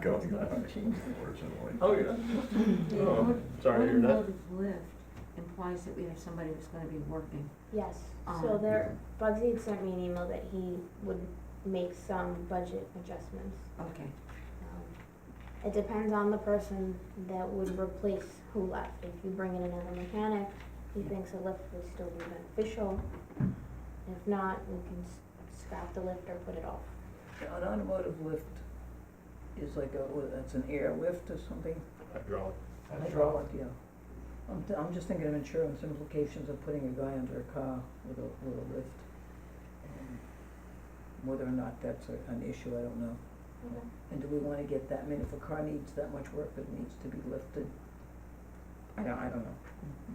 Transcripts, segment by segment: go. It's not gonna change. Unfortunately. Oh, yeah. The Oh, aut- sorry to hear that. Automotive lift implies that we have somebody that's gonna be working. Yes, so Um, there, Bugsy had sent me an email that he would make some budget adjustments. Okay, Um, It depends on the person that would replace who left. If you bring in another mechanic, he thinks a lift would still be beneficial. If not, we can s- scrap the lift or put it off. An automotive lift is like a, what, that's an air lift or something? Hydraulic. Hydraulic, yeah. I'm, th- I'm just thinking of insurance implications of putting a guy under a car with a, with a lift. Um, Whether or not that's a- an issue, I don't know. And do we wanna get that, I mean, if a car needs that much work, it needs to be lifted? I don't, I don't know.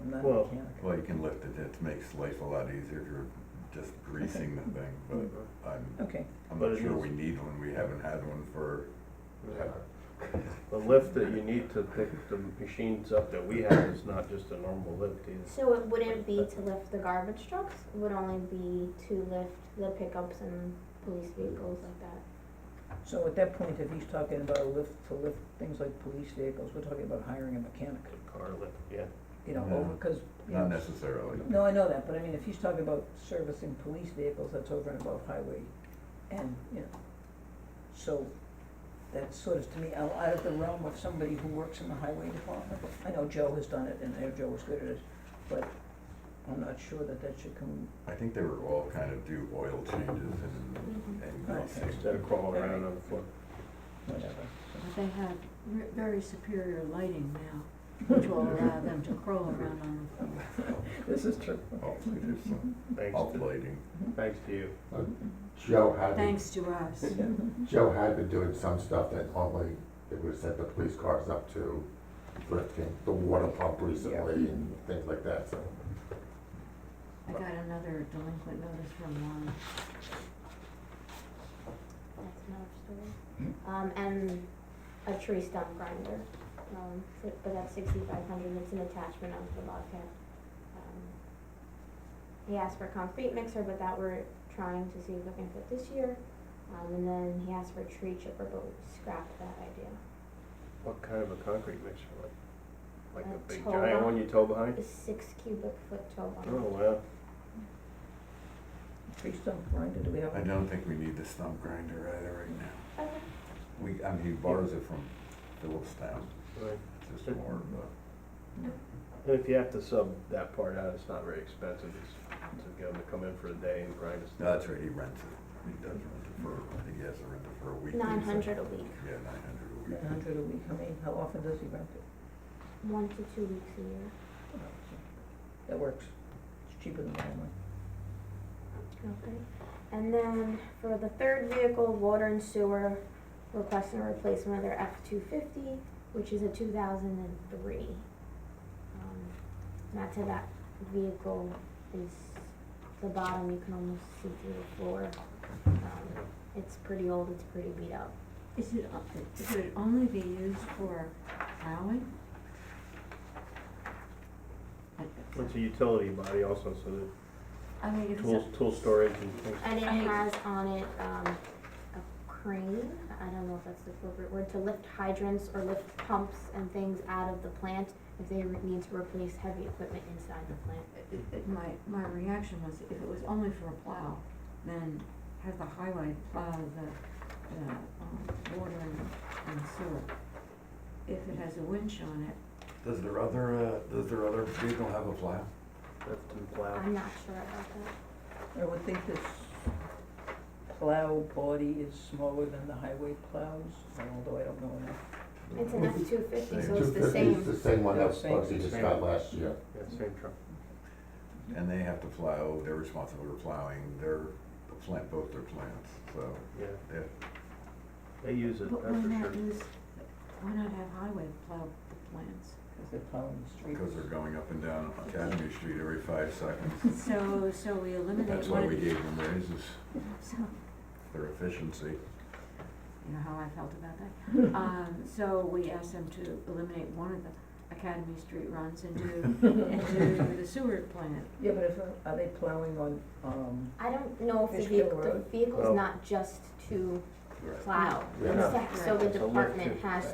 I'm not Well- a mechanic. Well, you can lift it, it makes life a lot easier if you're just greasing the thing, but I'm, Okay, I'm But not it sure is- we need one, we haven't had one for, The lift that you need to pick the machines up that we have is not just a normal lift either. So it wouldn't be to lift the garbage trucks, it would only be to lift the pickups and police vehicles like that. so at that point, if he's talking about a lift to lift things like police vehicles, we're talking about hiring a mechanic, Car lift, yeah. you know, Yeah. over, cause, you know, not necessarily. No, I know that, but I mean, if he's talking about servicing police vehicles, that's over and above highway, and, you know, so, that's sort of, to me, out out of the realm of somebody who works in the highway department. I know Joe has done it, and I know Joe was good at it, but I'm not sure that that should come, I think they were all kind of do oil changes and, Mm-hmm. and Okay. greasing. Instead of crawling around on the floor. whatever. but they have re- very superior lighting now, which will allow uh, them to crawl around on the floor. This is true. Hopefully there's Oh, some Thanks to, uplighting. thanks to you. Joe had, been- Thanks to us. Joe had been doing some stuff that only, it would set the police cars up to lifting the water pump recently and things like that, so. I got another delinquent notice from one. That's another story. Um, and a tree stump grinder, um, for- but that's sixty-five hundred, it's an attachment of the Bobcat. Um, He asked for a concrete mixer, but that we're trying to see if we can fit this year. Um, and then he asked for a tree chipper, but we scrapped that idea. What kind of a concrete mixer, like, like a A big tow giant bar. one you tow behind? The six cubic foot tow Oh, bar. wow. Tree stump grinder, do we have? I don't think we need the stump grinder either right now. Okay. We, I mean, he borrows it from Phillipstown, Right. it's just more of a, And if you have to sub that part out, it's not very expensive, it's to get them to come in for a day and grind us. no, that's right, he rents it. He does rent it for, I think he has to rent it for a week. Nine hundred a week, Yeah, nine hundred a week. Nine hundred a week, how many, how often does he rent it? Oh, one to two weeks a year. That works, it's cheaper than highway. Okay, and then for the third vehicle, water and sewer, requesting a replacement of their F two fifty, which is a two thousand and three. Um, Not to that vehicle is the bottom, you can almost see through the floor. Um, It's pretty old, it's pretty beat up. Is it, o- could it only be used for plowing? I- It's a utility body also, so the I mean, if it's, tools, a- tool storage and things. And it I- has on it, um, a crane, I don't know if that's the appropriate word, to lift hydrants or lift pumps and things out of the plant if they re- need to replace heavy equipment inside the plant. it- it- my, my reaction was, if it was only for a plow, then have the highway plow the, the, um, water and- and sewer. If it has a winch on it, Does their other, uh, does their other vehicle have a plow? Lift and plow. I'm not sure about that. I would think this plow body is smaller than the highway plows, although I don't know enough. It's an F two fifty, so Same. it's the 250 same. is the same one Yeah, that same, Bugsy just same. got last year. Yeah, same truck. And they have to plow, they're responsible for plowing their plant, both their plants, so, Yeah, yeah. they use it, but why that's for not sure. use, why not have highway plow the plants? Cause they're plowing the streets. Because they're going up and down Academy Street every five seconds. So, so we eliminate That's why one of we the, gave them raises, so, their efficiency. you know how I felt about that. Um, so we asked them to eliminate one of the Academy Street runs and do, and do the sewer plant. Yeah, but if, are they plowing on, um, I don't know if the Fish vehicle, Kill the Road. Oh. vehicle's not just to Right. plow. Yeah. It's to- So the It's a lift department to- has